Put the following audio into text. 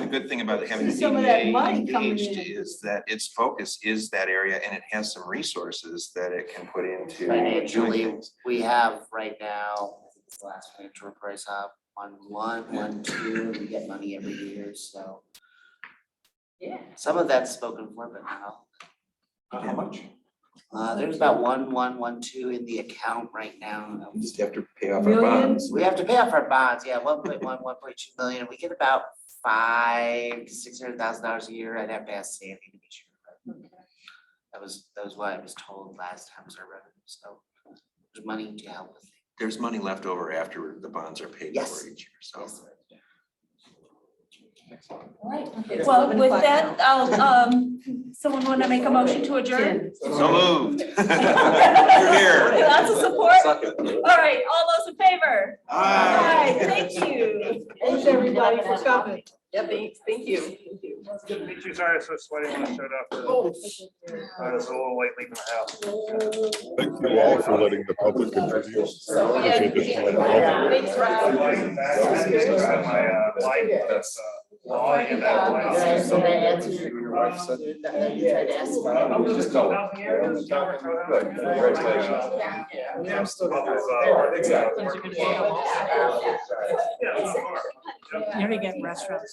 The good thing about having the See some of that DDA money coming engaged in. is that its focus is that area and it has some resources that it can put into doing Financially, things. we have right now, I think it's the last financial price up on one, one, two, we get money every year, so. Yeah. Some of that's spoken for, but now, How how much? uh, there's about one, one, one, two in the account right now. We Just have to pay off our Million? bonds. We have to pay off our bonds, yeah, one point one, one point two million, we get about five, six hundred thousand dollars a year, I'd have to ask Sandy to be sure. but That was, that was what I was told last time was our revenue, so there's money to help with. There's money left over after the bonds are paid Yes. for each year, so. this. Well, with that, I'll, um, someone wanna make a motion to adjourn? So moved. You're here. Lots of support. Suck it. All right, all those in favor? Aye. Aye, thank you. Thanks, everybody, for coming. Yep. Thank you. Good to meet you. Sorry, I was so sweaty when I showed up. I was a little late leaving the house. Thank you all for letting the public contribute. So, yeah. Additional involvement. Thanks, Rob. Like that, I had to grab my, uh, light, that's, uh, law in that Yeah, place. so that answers your- Your wife said- That you tried to ask about. I'm just- Good, congratulations. Yeah. Yeah, I'm still. Well, uh, Exactly. Yeah, of course. Yeah. You already get restaurants.